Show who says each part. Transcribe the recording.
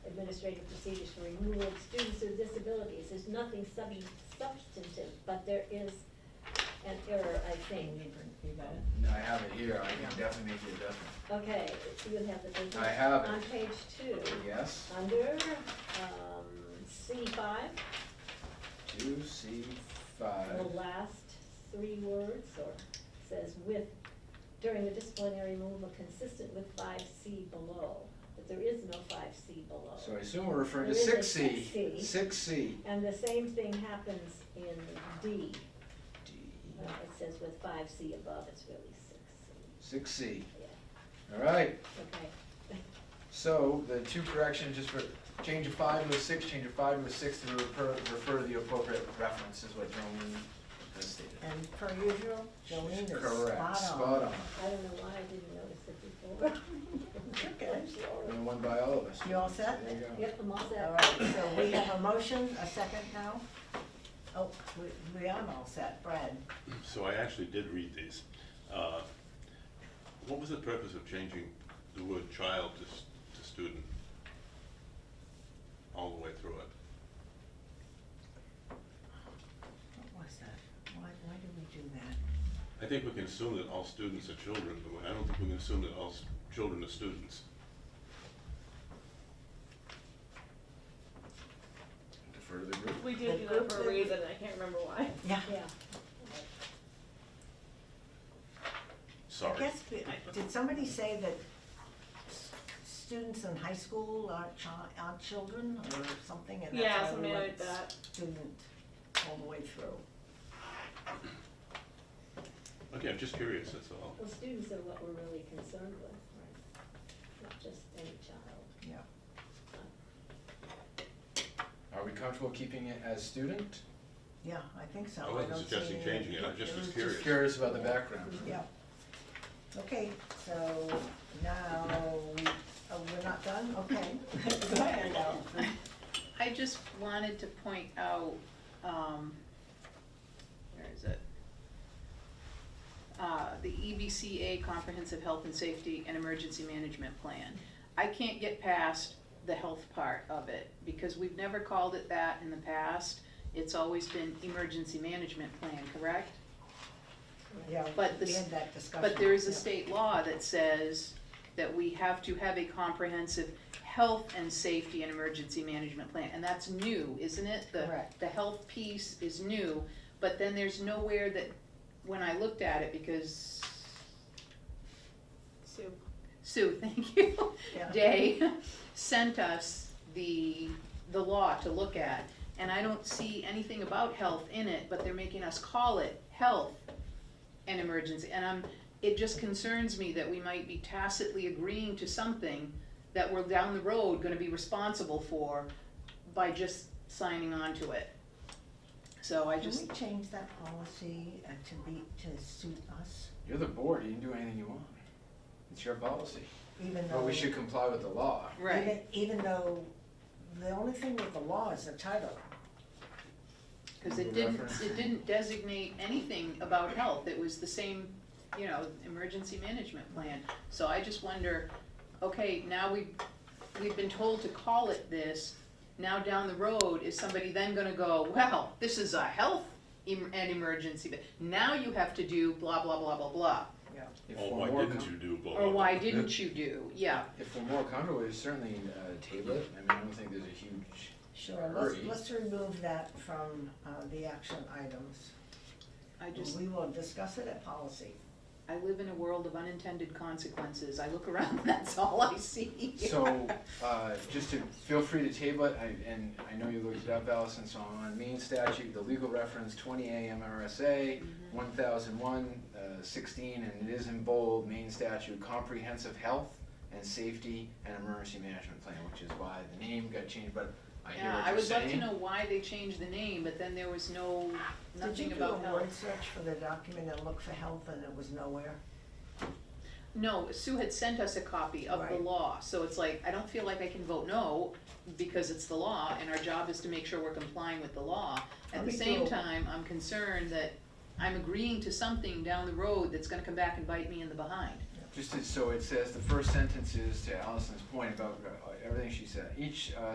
Speaker 1: administrative procedures for removal of students with disabilities. There's nothing subs- substantive, but there is an error, I think.
Speaker 2: You got it?
Speaker 3: No, I have it here, I can definitely make the adjustment.
Speaker 1: Okay, you have the business.
Speaker 3: I have it.
Speaker 1: On page two,
Speaker 3: Yes,
Speaker 1: under, um, C five,
Speaker 3: two, C, five,
Speaker 1: the last three words, or says with, during the disciplinary removal consistent with five C below, but there is no five C below.
Speaker 3: so I assume we're referring to
Speaker 1: There is
Speaker 3: six
Speaker 1: a
Speaker 3: C.
Speaker 1: 6C.
Speaker 3: Six C.
Speaker 1: And the same thing happens in D.
Speaker 3: D,
Speaker 1: Uh, It says with five C above, it's really six C,
Speaker 3: six C,
Speaker 1: yeah,
Speaker 3: all right.
Speaker 1: okay.
Speaker 3: So the two corrections, just for, change of five to a six, change of five to a six to refer, refer to the appropriate reference is what Jolene has stated.
Speaker 2: And per usual, Jolene is spot on.
Speaker 3: Correct, spot on,
Speaker 1: I don't know why I didn't notice it before.
Speaker 2: Okay.
Speaker 3: and one by all of us.
Speaker 2: You all set?
Speaker 3: There you go.
Speaker 1: Yep, I'm all set.
Speaker 2: All right, so we have a motion, a second now? Oh, we, we are all set, Brad.
Speaker 4: So I actually did read these. Uh, What was the purpose of changing the word child to, s- to student all the way through it?
Speaker 2: What was that? Why, why did we do that?
Speaker 4: I think we can assume that all students are children, but I don't think we can assume that all s- children are students.
Speaker 3: Defer to the group.
Speaker 5: We did do that for a reason, I can't remember why.
Speaker 2: Yeah.
Speaker 1: Yeah,
Speaker 2: I
Speaker 4: Sorry.
Speaker 2: guess, we- did somebody say that s- students in high school are chi- are children or something? and that's
Speaker 5: Yeah,
Speaker 2: why we
Speaker 5: something
Speaker 2: went
Speaker 5: like that.
Speaker 2: Student all the way through.
Speaker 4: Okay, I'm just curious, that's all.
Speaker 1: well, students are what we're really concerned with, right? Not just any child.
Speaker 2: Yeah.
Speaker 3: Are we comfortable keeping it as student?
Speaker 2: Yeah, I think so.
Speaker 4: I
Speaker 2: I
Speaker 4: wasn't
Speaker 2: don't see
Speaker 4: suggesting
Speaker 2: any-
Speaker 4: changing it, I just was curious.
Speaker 3: Just curious about the background.
Speaker 2: Yeah. Okay, so now, oh, we're not done? Okay. Go ahead, Al.
Speaker 6: I just wanted to point out, um, where is it? Uh, the EBCA Comprehensive Health and Safety and Emergency Management Plan. I can't get past the health part of it, because we've never called it that in the past. It's always been Emergency Management Plan, correct?
Speaker 2: Yeah,
Speaker 6: But
Speaker 2: we
Speaker 6: this-
Speaker 2: had that discussion.
Speaker 6: But there is a
Speaker 2: Yeah.
Speaker 6: state law that says that we have to have a comprehensive health and safety and emergency management plan, and that's new, isn't it? The-
Speaker 2: Correct.
Speaker 6: The health piece is new, but then there's nowhere that, when I looked at it, because
Speaker 5: So,
Speaker 6: Sue, thank you,
Speaker 2: Yeah.
Speaker 6: Day sent us the, the law to look at. And I don't see anything about health in it, but they're making us call it health and emergency. And I'm, it just concerns me that we might be tacitly agreeing to something that we're down the road gonna be responsible for by just signing on to it. So I
Speaker 2: Can
Speaker 6: just,
Speaker 2: we change that policy uh, to be, to suit us,
Speaker 3: You're the board, you can do anything you want. It's your policy.
Speaker 2: even though?
Speaker 3: But we should comply with the law.
Speaker 6: right,
Speaker 2: even- Even though, the only thing with the law is the title.
Speaker 6: cause it didn't, it didn't designate anything about health, it was the same, you know, emergency management plan. So I just wonder, okay, now we, we've been told to call it this, now down the road, is somebody then gonna go, well, this is a health em- and emergency, but now you have to do blah, blah, blah, blah, blah.
Speaker 3: If
Speaker 4: Or
Speaker 3: we're
Speaker 4: Oh, why
Speaker 3: more
Speaker 4: didn't
Speaker 3: com-
Speaker 4: you do blah, blah,
Speaker 6: Or
Speaker 4: blah.
Speaker 6: why didn't you do, yeah,
Speaker 3: If we're more comfortable, we certainly uh, table it. I mean, I don't think there's a huge,
Speaker 2: Sure, let's,
Speaker 3: Hurry.
Speaker 2: let's remove that from uh, the action items.
Speaker 6: I just,
Speaker 2: We will discuss it at policy.
Speaker 6: I live in a world of unintended consequences, I look around, that's all I see.
Speaker 3: so, uh, just to, feel free to table it, I- and I know you looked it up, Allison, so on main statute, the legal reference, twenty A MRSA,
Speaker 6: Mm-hmm.
Speaker 3: one thousand one, uh, sixteen, and it is in bold, main statute, comprehensive health and safety and emergency management plan, which is why the name got changed, but I hear
Speaker 6: Yeah,
Speaker 3: what
Speaker 6: I
Speaker 3: you're
Speaker 6: would love to
Speaker 3: saying.
Speaker 6: know why they changed the name, but then there was no,
Speaker 2: Did you
Speaker 6: nothing
Speaker 2: do a
Speaker 6: about
Speaker 2: word
Speaker 6: health.
Speaker 2: search for the document and look for health and it was nowhere?
Speaker 6: No, Sue had sent us a copy of the
Speaker 2: Right.
Speaker 6: law, so it's like, I don't feel like I can vote no, because it's the law, and our job is to make sure we're complying with the law. At the
Speaker 2: Me
Speaker 6: same
Speaker 2: too.
Speaker 6: time, I'm concerned that I'm agreeing to something down the road that's gonna come back and bite me in the behind.
Speaker 3: Just as- so it says, the first sentence is to Allison's point about uh, everything she said. Each uh,